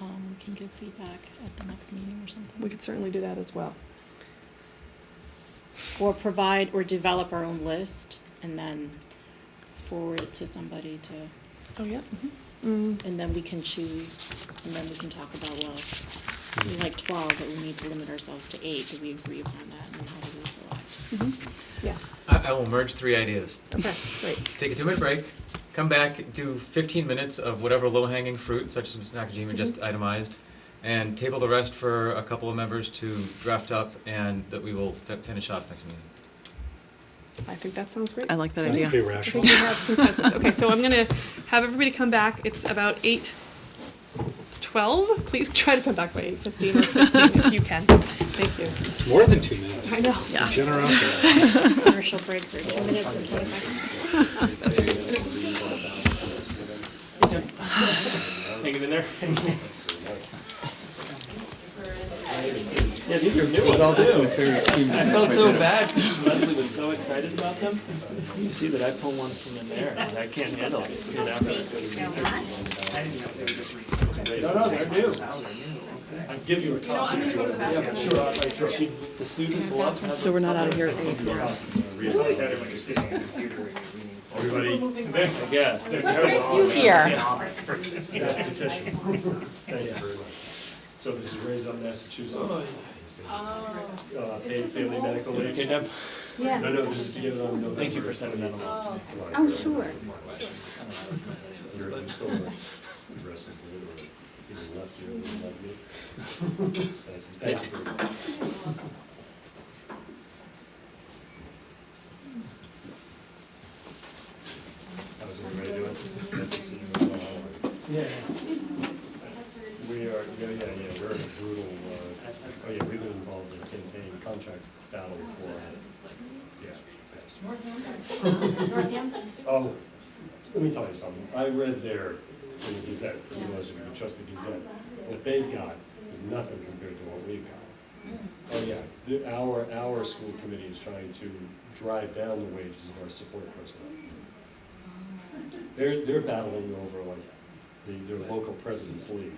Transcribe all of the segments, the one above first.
um, can give feedback at the next meeting or something. We could certainly do that as well. Or provide, or develop our own list and then s- forward it to somebody to, Oh, yeah. Mm-hmm. Mm-hmm. and then we can choose, and then we can talk about, well, we Mm-hmm. like twelve, but we need to limit ourselves to eight, do we agree upon that, and then how do we select? Yeah. I, I will merge three ideas. Okay, great. Take a two-minute break, come back, do 15 minutes of whatever low-hanging fruit, such as Ms. Nakajima just itemized, and table the rest for a couple of members to draft up, and that we will fi- finish off next meeting. I think that sounds great. I like that Sounds idea. pretty I rational. think we have consensus. Okay, so I'm gonna have everybody come back. It's about eight twelve. Please try to come back by eight fifteen or sixteen if you can. Thank you. It's more than two minutes. I know. Generosity. Commercial breaks are two minutes and twenty seconds. Hang it in there. Yeah, these are new ones too. I felt so bad because Leslie was so excited about them. You see that I pulled one from in there and I can't handle it. It's good after I put it. in there. No, no, they're new. I'll give you a copy. Yeah, sure, sure. She- The suit is loved. So we're not out of here at eight. I guess. They're terrible. So this is raised on Massachusetts. Oh, Uh, paid family medical Is it okay, Deb? leave. No, no, this is to get it on November. Thank you for sending that along. Oh, sure. How's everybody doing? That's the same as all. Yeah. We are, yeah, yeah, yeah, we're in a brutal, uh, oh yeah, we've been involved in a campaign contract battle for, yeah. Um, let me tell you something, I read there in the Gazette, you know, if you can trust the Gazette, what they've got is nothing compared to what we've got. Oh yeah, the, our, our school committee is trying to drive down the wages of our support personnel. They're, they're battling over like the, their local president's league.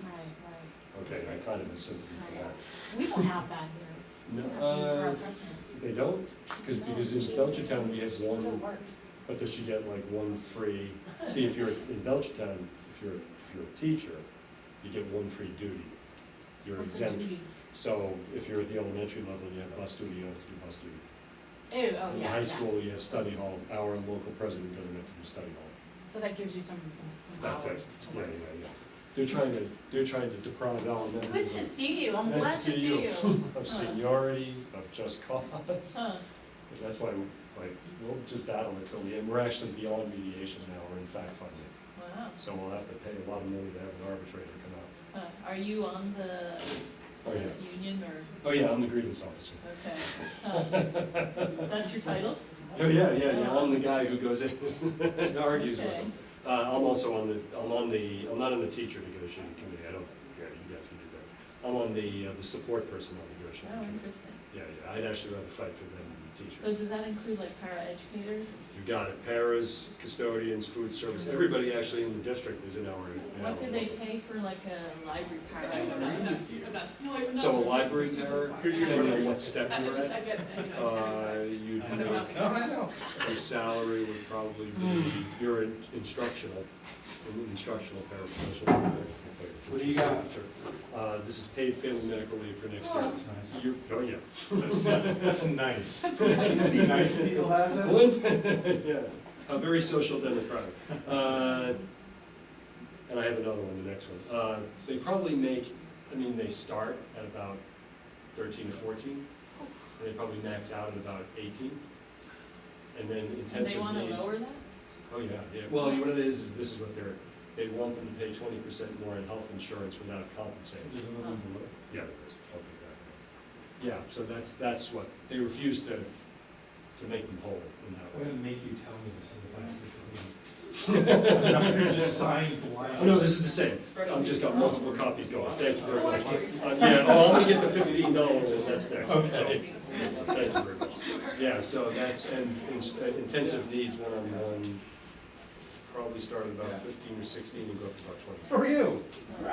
Okay, I kind of have sympathy for that. We don't have that here. No, uh, they don't, because, because in Belchertown, we have Still one, works. but does she get like one free? See, if you're in Belchertown, if you're, if you're a teacher, you get one free duty. You're What's the exempt. duty? So if you're at the elementary level, you have bus duty, you have to do bus duty. Ew, oh, In yeah, high yeah. school, you have study hall. Our local president doesn't have to do study hall. So that gives you some, some, some That's it, hours to yeah, work. yeah, yeah. They're trying to, they're trying to deprive elementary. Good to see you, I'm Nice glad to see you. Of seniority, of just cause. Huh. That's why, like, we'll just battle until the end. We're actually beyond mediation now, we're in fact finding. Wow. So we'll have to pay a lot of money to have an arbitrator come out. Huh. Are you on the Oh, uh, yeah. union or, Oh, yeah, I'm the grievance officer. okay. Huh. That's your title? Oh, yeah, yeah, yeah, I'm the guy who goes in and argues with them. Uh, I'm also on the, I'm on the, I'm not on the teacher negotiating committee, I don't, yeah, you guys can do that. I'm on the, uh, the support personnel Oh, negotiating committee. interesting. Yeah, yeah, I'd actually rather fight for them than the teachers. So does that include like para educators? You got it, paras, custodians, food service, everybody actually in the district is in our. in our What do they pay for like a library para? role. So a library terror, depending on what step you're at, get, you uh, you'd have, a salary would probably be, Hmm. your in- instructional, an instructional paraprofessional. What do you got? Uh, this is paid family medical leave for next year. nice. You're, oh, yeah. That's nice. Nice that you'll have this. Yeah, a very social democratic. Uh, And I have another one, the next one. Uh, They probably make, I mean, they start at about thirteen to fourteen, Oh. and they probably max out at about eighteen. And then And intensive days. they wanna lower that? Oh, yeah, yeah. Well, what it is, is this is what they're, they want them to pay twenty percent more in health insurance without compensating. Yeah, there is, something like that. Yeah, so that's, that's what, they refuse to, to make them whole in that I'm way. gonna make you tell me this in the last meeting. I'm not gonna just sign Oh, blind. no, this is the same. I've just got multiple copies going. Thank you very much. Uh, Yeah, oh, I'm gonna get the fifteen dollars and that's next. So, Okay. Thank you very much. Yeah, so that's, and in- uh, intensive needs one-on-one, probably started about fifteen or sixteen and go up to about twenty. For you.